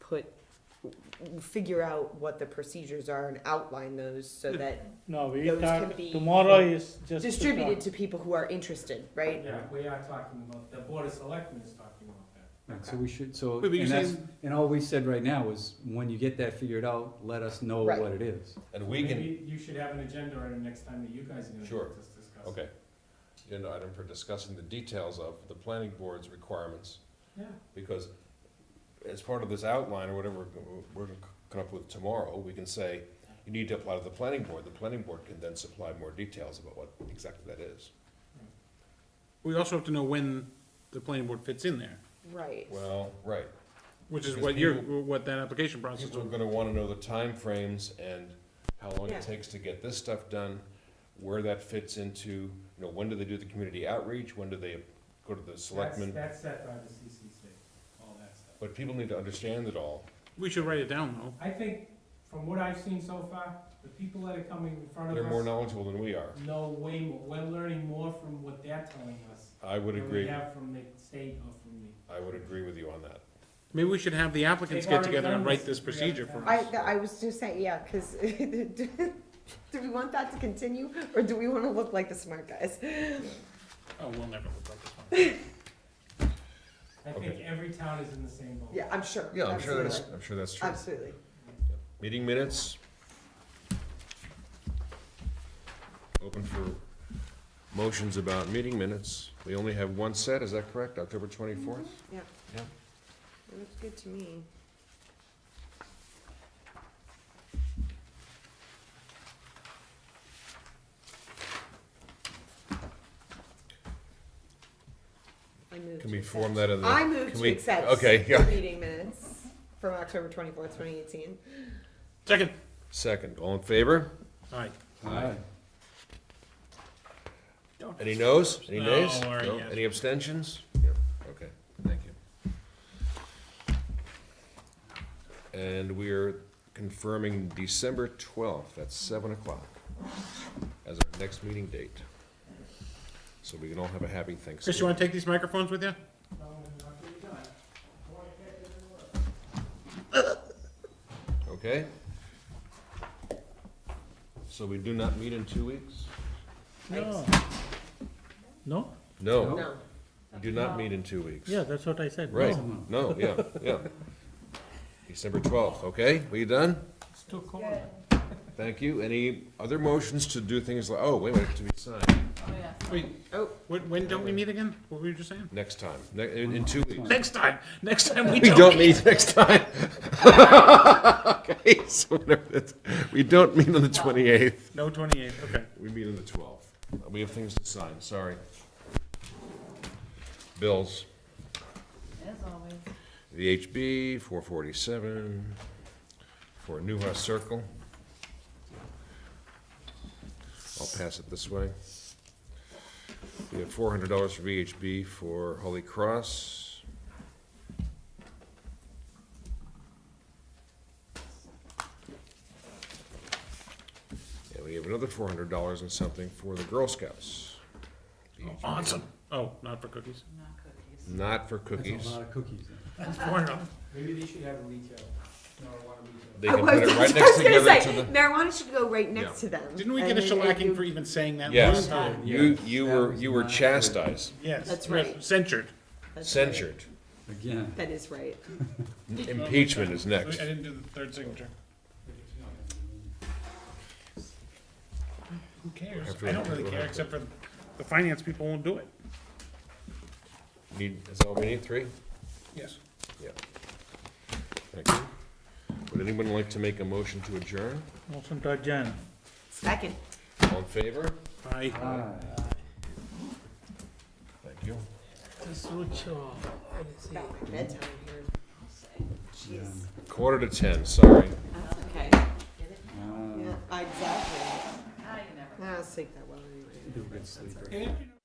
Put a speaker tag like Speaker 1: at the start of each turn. Speaker 1: put, figure out what the procedures are and outline those so that
Speaker 2: No, we
Speaker 1: Those
Speaker 2: thought
Speaker 1: can be
Speaker 2: tomorrow is just. to
Speaker 1: distributed
Speaker 2: talk.
Speaker 1: to people who are interested, right?
Speaker 3: Yeah, we are talking about, the board of selectmen is talking about that.
Speaker 4: Right, so we should, so,
Speaker 5: Wait, but you're
Speaker 4: and that's,
Speaker 5: saying-
Speaker 4: and all we said right now is, when you get that figured out, let us know
Speaker 1: Right.
Speaker 4: what it is.
Speaker 6: And we can,
Speaker 3: Maybe you should have an agenda item next time that you guys are gonna
Speaker 6: Sure.
Speaker 3: just discuss.
Speaker 6: okay, agenda item for discussing the details of the planning board's requirements,
Speaker 3: Yeah,
Speaker 6: because as part of this outline or whatever we're gonna come up with tomorrow, we can say, you need to apply to the planning board, the planning board can then supply more details about what exactly that is.
Speaker 5: We also have to know when the planning board fits in there,
Speaker 1: Right.
Speaker 6: Well, right,
Speaker 5: which is
Speaker 6: Because
Speaker 5: what you're,
Speaker 6: people-
Speaker 5: what that application process
Speaker 6: people are
Speaker 5: will.
Speaker 6: gonna wanna know the timeframes and how long
Speaker 1: Yeah.
Speaker 6: it takes to get this stuff done, where that fits into, you know, when do they do the community outreach, when do they go to the
Speaker 3: that's,
Speaker 6: selectmen?
Speaker 3: that's set by the CCC, all that stuff.
Speaker 6: But people need to understand it all,
Speaker 5: We should write it down though.
Speaker 3: I think, from what I've seen so far, the people that are coming in front of us.
Speaker 6: they're more knowledgeable than we are.
Speaker 3: know way more, we're learning more from what they're telling us.
Speaker 6: I would
Speaker 3: Than we
Speaker 6: agree,
Speaker 3: have from the state or from the.
Speaker 6: I would agree with you on that.
Speaker 5: Maybe we should have the applicants
Speaker 3: They've
Speaker 5: get
Speaker 3: already
Speaker 5: together and
Speaker 3: done
Speaker 5: write
Speaker 3: this.
Speaker 5: this procedure
Speaker 3: Yeah.
Speaker 5: for
Speaker 1: I,
Speaker 5: us.
Speaker 1: th- I was just saying, yeah, cause, do we want that to continue, or do we wanna look like the smart guys?
Speaker 5: Oh, we'll never look like this one.
Speaker 3: I think every town is in the same boat.
Speaker 1: Yeah, I'm sure.
Speaker 6: Yeah, I'm sure that's,
Speaker 1: Absolutely.
Speaker 6: I'm sure that's true.
Speaker 1: Absolutely.
Speaker 6: Meeting minutes. Open for motions about meeting minutes. We only have one set, is that correct? October twenty-fourth?
Speaker 1: Yeah.
Speaker 6: Yeah.
Speaker 1: It looks good to me. I move
Speaker 6: Can
Speaker 1: to
Speaker 6: we
Speaker 1: accept.
Speaker 6: form that in the?
Speaker 1: I move
Speaker 6: can
Speaker 1: to
Speaker 6: we-
Speaker 1: accept.
Speaker 6: Okay,
Speaker 1: the
Speaker 6: yeah.
Speaker 1: Meeting minutes from October twenty-fourth, twenty eighteen.
Speaker 5: Second.
Speaker 6: Second, all in favor?
Speaker 5: All right.
Speaker 4: Alright,
Speaker 6: Any noes? Any
Speaker 5: No,
Speaker 6: nays?
Speaker 5: or
Speaker 6: No?
Speaker 5: yes.
Speaker 6: Any abstentions? Yep. Okay, thank you. And we're confirming December twelfth at seven o'clock as our next meeting date. So we can all have a happy
Speaker 5: Chris, you wanna
Speaker 6: Thanksgiving.
Speaker 5: take these microphones with you?
Speaker 6: Okay? So we do not meet in two weeks?
Speaker 2: No. No?
Speaker 6: No,
Speaker 1: No,
Speaker 6: we do not meet in two weeks.
Speaker 2: Yeah, that's what I said.
Speaker 6: Right,
Speaker 2: No.
Speaker 6: no, yeah, yeah. December twelfth, okay? We done?
Speaker 3: It's too cold.
Speaker 6: Thank you. Any other motions to do things like, oh, wait, wait, to be signed
Speaker 5: Wait,
Speaker 1: oh,
Speaker 5: when, when don't we meet again? What were you just saying?
Speaker 6: next time, ne- in, in two weeks.
Speaker 5: Next time, next time we
Speaker 6: We
Speaker 5: don't
Speaker 6: don't
Speaker 5: meet.
Speaker 6: meet next time. Okay, so whatever that's- we don't meet on the twenty-eighth.
Speaker 5: No twenty-eight, okay.
Speaker 6: We meet on the twelfth. We have things to sign, sorry. Bills,
Speaker 7: As always.
Speaker 6: VHB, four forty-seven, for Newhouse Circle. I'll pass it this way. We have four hundred dollars for VHB for Holy Cross. And we have another four hundred dollars and something for the Girl Scouts.
Speaker 5: Awesome. Oh, not for cookies.
Speaker 7: Not cookies.
Speaker 6: Not for
Speaker 4: that's a
Speaker 6: cookies.
Speaker 4: lot of cookies.
Speaker 5: Four hundred.
Speaker 3: Maybe they should have a retail, marijuana retail.
Speaker 6: They
Speaker 1: I
Speaker 6: can
Speaker 1: was,
Speaker 6: put
Speaker 1: I
Speaker 6: it right
Speaker 1: was
Speaker 6: next
Speaker 1: gonna
Speaker 6: together
Speaker 1: say,
Speaker 6: to the.
Speaker 1: marijuana should go right next to them.
Speaker 5: Didn't we
Speaker 1: And
Speaker 5: get a
Speaker 1: then- and
Speaker 5: shellacking
Speaker 1: you-
Speaker 5: for even saying that
Speaker 6: Yes.
Speaker 5: last time?
Speaker 6: You, you
Speaker 4: That
Speaker 6: were,
Speaker 4: was
Speaker 6: you were
Speaker 4: not good.
Speaker 6: chastised,
Speaker 5: Yes.
Speaker 1: That's
Speaker 5: yes,
Speaker 1: right.
Speaker 5: Censured.
Speaker 1: That's right.
Speaker 6: censured.
Speaker 4: Again,
Speaker 1: That is right.
Speaker 6: Impeachment is
Speaker 5: I
Speaker 6: next.
Speaker 5: didn't do the third signature. Who cares?
Speaker 6: After
Speaker 5: I don't
Speaker 6: we-
Speaker 5: really care, except for the finance people won't do it.
Speaker 6: Need, is that all we need, three?
Speaker 5: Yes.
Speaker 6: Yeah. Thank you. Would anyone like to make a motion to adjourn?
Speaker 2: Motion to adjourn.
Speaker 1: Second.
Speaker 6: All in favor?
Speaker 5: I.
Speaker 4: alright.
Speaker 6: Thank you.
Speaker 1: About my bedtime here.
Speaker 4: Yeah.
Speaker 1: Jeez.
Speaker 6: Quarter to ten, sorry.
Speaker 7: That's okay. Get it?
Speaker 4: Ah,
Speaker 1: Yeah, exactly.
Speaker 7: Ah, you never.
Speaker 1: Um, I don't sleep that well anyway.
Speaker 4: you're a good sleeper.
Speaker 3: And if you